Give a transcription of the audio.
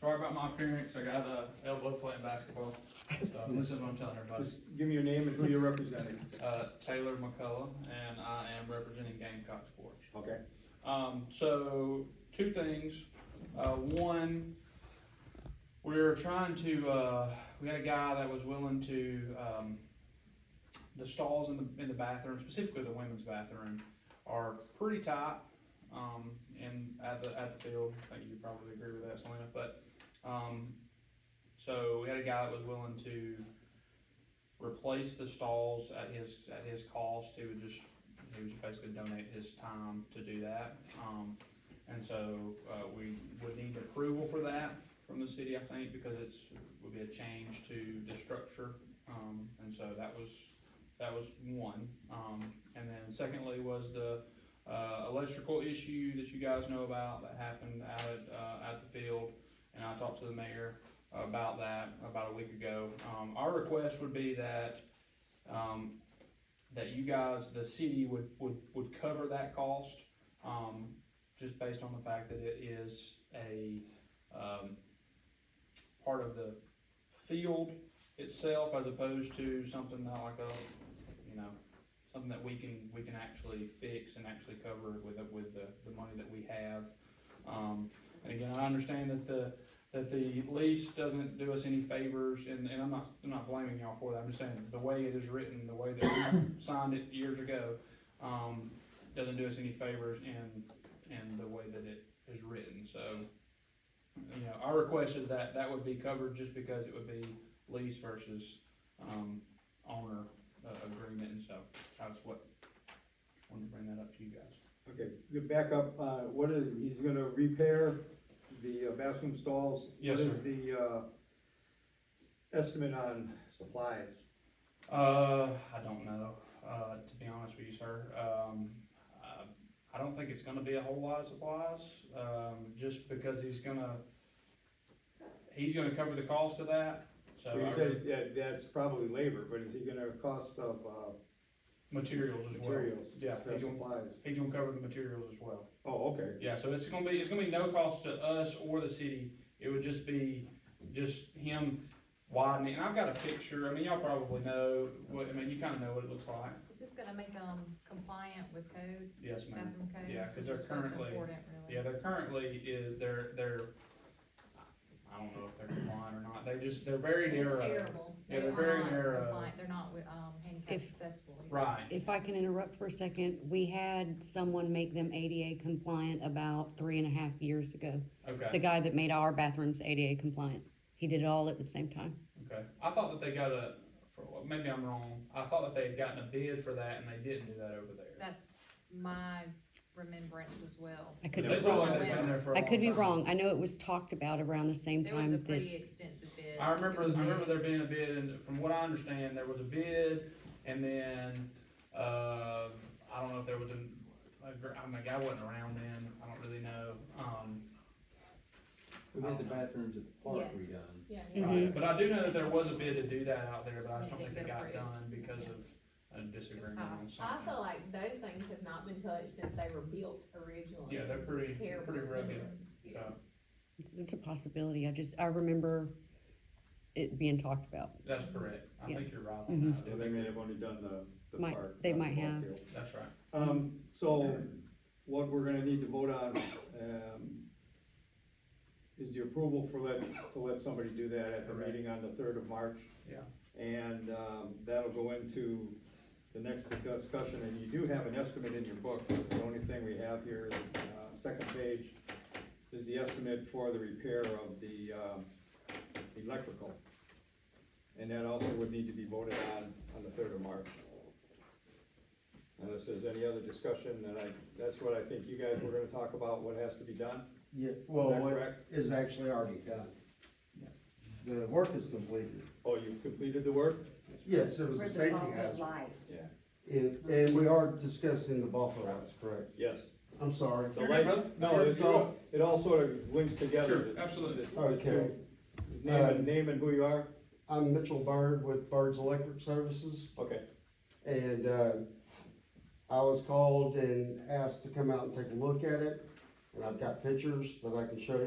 Sorry about my appearance, I got a elbow playing basketball, so this is what I'm telling everybody. Just give me your name and who you're representing. Uh, Taylor McCullough, and I am representing Gamecock Sports. Okay. Um, so, two things. Uh, one, we're trying to, uh, we had a guy that was willing to, um, the stalls in the, in the bathroom, specifically the women's bathroom, are pretty tight, um, in, at the, at the field. I think you probably agree with that, Selena, but, um, so we had a guy that was willing to replace the stalls at his, at his cost. He would just he was basically donate his time to do that. Um, and so, uh, we would need approval for that from the city, I think, because it's, would be a change to the structure. Um, and so that was, that was one. Um, and then secondly was the, uh, electrical issue that you guys know about that happened out at, uh, at the field. And I talked to the mayor about that about a week ago. Um, our request would be that, um, that you guys, the city would, would, would cover that cost, um, just based on the fact that it is a, um, part of the field itself as opposed to something that like a, you know, something that we can, we can actually fix and actually cover with, the- with the, the money that we have. Um, and again, I understand that the, that the lease doesn't do us any favors, and, and I'm not, I'm not blaming y'all for that, I'm just saying, the way it is written, the way that we signed it years ago, um, doesn't do us any favors in, in the way that it is written, so. You know, our request is that, that would be covered just because it would be lease versus, um, owner, uh, agreement, and so, that's what, just wanted to bring that up to you guys. Okay, good back up, uh, what is, he's gonna repair the uh, bathroom stalls? Yes, What sir. is the, uh, estimate on supplies? Uh, I don't know, uh, to be honest with you, sir. Um, uh, I don't think it's gonna be a whole lot of supplies, um, just because he's gonna, he's gonna cover the cost of that, so Well, I You said, really- yeah, that's probably labor, but is he gonna cost of, uh, materials as well. materials? Yeah, uh, he's gonna, Supplies? he's gonna cover the materials as well. Oh, okay, Yeah, so it's gonna be, it's gonna be no cost to us or the city, it would just be, just him widening, and I've got a picture, I mean, y'all probably know, what, I mean, you kinda know what it looks like. Is this gonna make them compliant with code, Yes, ma'am. bathroom code? Yeah, 'cause they're Which is what's currently- important, Yeah, really. they're currently, is, they're, they're, I don't know if they're compliant or not, they're just, they're very It's narrow. terrible. Yeah, They they're are very not narrow. compliant. They're not, um, handicap If- accessible. either. Right, If I can interrupt for a second, we had someone make them ADA compliant about three and a half years ago. The okay, guy that made our bathrooms ADA compliant. He did it all at the same time. okay. I thought that they got a, for, well, maybe I'm wrong, I thought that they had gotten a bid for that and they didn't do that over there. That's my remembrance as well. I could They be probably wrong. have been there for a I could be long time. wrong. I know it was talked about around the same There was a time that, pretty extensive bid. I remember, I Mm-hmm. It was remember bid. there being a bid, and from what I understand, there was a bid, and then, uh, I don't know if there was a, a gr- I mean, I wasn't around then, I don't really know, um, We had the bathrooms at the park redone. Yeah. Right, Mhm. Mm-hmm. but I do know that there was a bid to do that out there, but I just don't They think didn't it get got approved. done because of a disagreement on I something. feel like those things have not been touched since they were built originally. Yeah, they're pretty, they're Terrible. pretty rugged, so, it's, it's a possibility. I just, I remember it being talked about. that's correct, I Yeah. think you're right on yeah, that, they may have only done the, the Might- park. they not the might ball have. field. that's right. Um, so, what we're gonna need to vote on, um, is the approval for let, to let somebody do that at the Correct. meeting on the third of March. Yeah. And, um, that'll go into the next discussion, and you do have an estimate in your book, the only thing we have here is, uh, second page, is the estimate for the repair of the, um, electrical. And that also would need to be voted on, on the third of March. Unless there's any other discussion, then I, that's what I think you guys were gonna talk about, what has to be done. Yeah, well, Is that what correct? is actually already done. The work is completed. Oh, you've completed the work? Yes, it was a safety hazard. And, and we are discussing the Buffalo lights, correct? Yes. I'm sorry. The lights, no, it's all, it all sort of links together. Sure, absolutely. Okay, Name and, name and who you are? I'm Mitchell Byrd with Bird's Electric Services. Okay, And, uh, I was called and asked to come out and take a look at it. And I've got pictures that I can show you.